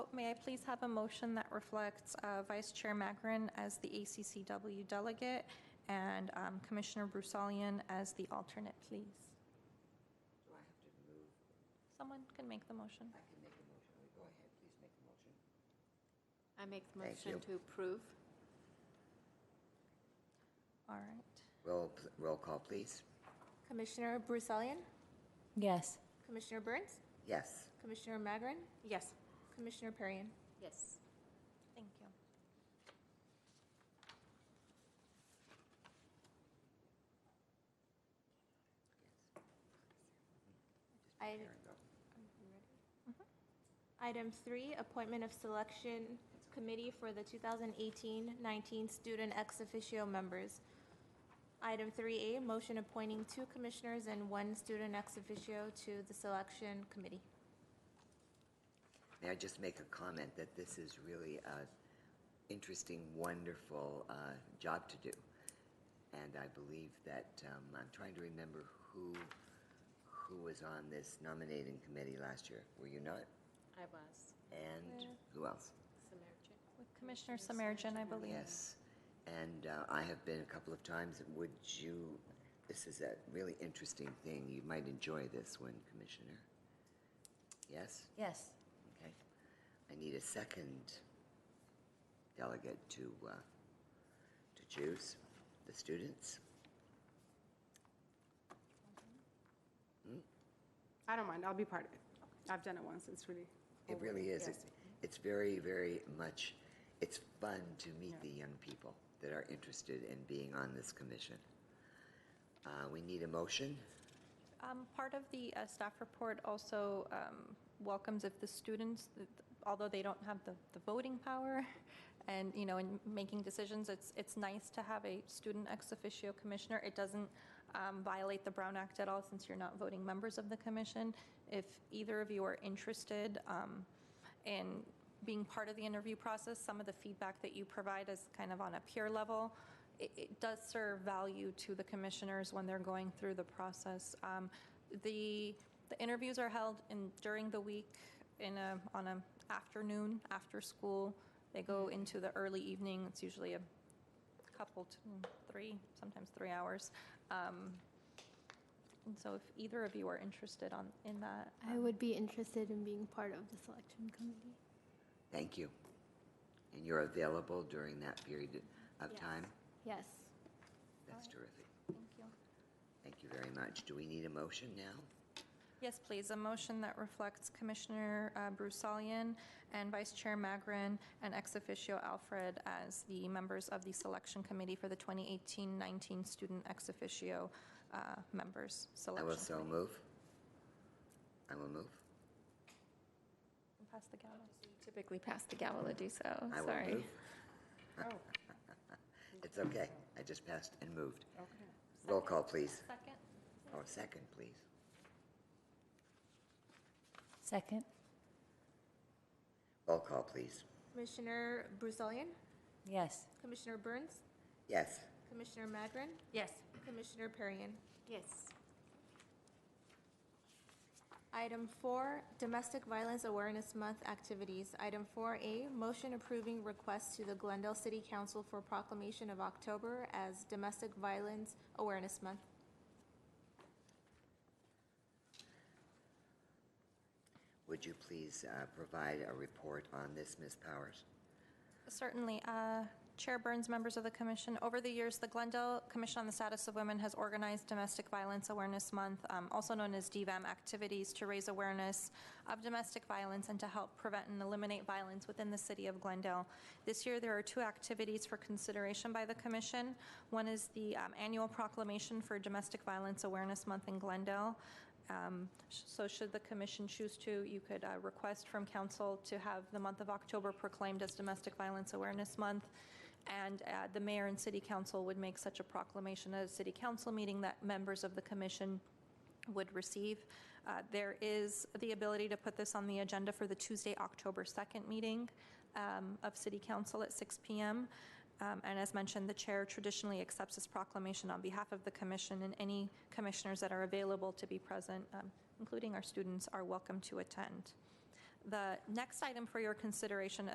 may I please have a motion that reflects uh, Vice Chair Magrin as the ACCW delegate and um, Commissioner Brusalian as the alternate, please? Do I have to move? Someone can make the motion. I can make a motion. We Go ahead, please make a motion. I make the Thank you. motion to approve. All right. Roll, roll call, please. Commissioner Brusalian? Yes. Commissioner Burns? Yes. Commissioner Magrin? Yes. Commissioner Perrin? Yes. Thank you. There I- we go. Item three, appointment of selection committee for the 2018-19 student ex officio members. Item 3A, motion appointing two commissioners and one student ex officio to the selection committee. May I just make a comment that this is really an interesting, wonderful uh, job to do? And I believe that, um, I'm trying to remember who, who was on this nominating committee last year. Were you not? I was. And who else? Samaritan. With Commissioner Samajian, I believe. Yes, and uh, I have been a couple of times. Would you, this is a really interesting thing. You might enjoy this one, Commissioner. Yes? Yes. Okay. I need a second delegate to, uh, to choose, the students. I don't mind, I'll be part of it. I've done it once, it's really. It really is. Yes. It's- It's very, very much, it's fun to meet the young people that are interested in being on this commission. Uh, We need a motion. Um, Part of the uh, staff report also um, welcomes if the students, although they don't have the the voting power and, you know, in making decisions, it's, it's nice to have a student ex officio commissioner. It doesn't um, violate the Brown Act at all since you're not voting members of the commission. If either of you are interested um, in being part of the interview process, some of the feedback that you provide is kind of on a peer level it, it does serve value to the commissioners when they're going through the process. Um, the the interviews are held in during the week in a on a afternoon after school. They go Mm-hmm. into the early evening. It's usually a couple to mm, three, sometimes three hours. Um, and so, if either of you are interested on in that, I would be interested in being part of the selection committee. Thank you. And you're available during that period of Yes. time? Yes. That's terrific. um, thank you. Thank you very much. Do we need a motion now? Yes, please, a motion that reflects Commissioner uh, Brusalian and Vice Chair Magrin and ex officio Alfred as the members of the selection committee for the 2018-19 student ex officio uh, members I selection. will so move. I will move. Pass the gavel. Typically pass the gavelage, so I will move. It's okay. I just passed and moved. Okay. Roll call, please. Second? Or second, please. Second? Roll call, please. Commissioner Brusalian? Yes. Commissioner Burns? Yes. Commissioner Magrin? Yes. Commissioner Perrin? Yes. Item four, Domestic Violence Awareness Month activities. Item 4A, motion approving request to the Glendale City Council for proclamation of October as Domestic Violence Awareness Month. Would you please uh, provide a report on this, Ms. Powers? Certainly. Uh, Chair Burns, members of the commission, over the years, the Glendale Commission on the Status of Women has organized Domestic Violence Awareness Month, um, also known as DVAM, activities to raise awareness of domestic violence and to help prevent and eliminate violence within the city of Glendale. This year, there are two activities for consideration by the commission. One is the um, annual proclamation for Domestic Violence Awareness Month in Glendale, um, sh- So should the commission choose to, you could uh, request from council to have the month of October proclaimed as Domestic Violence Awareness Month, and uh, the mayor and city council would make such a proclamation at a city council meeting that members of the commission would receive. Uh, There is the ability to put this on the agenda for the Tuesday, October 2nd meeting um, of city council at 6 PM. Um, And as mentioned, the chair traditionally accepts this proclamation on behalf of the commission, and any commissioners that are available to be present, um, including our students, are welcome to attend. The next item for your consideration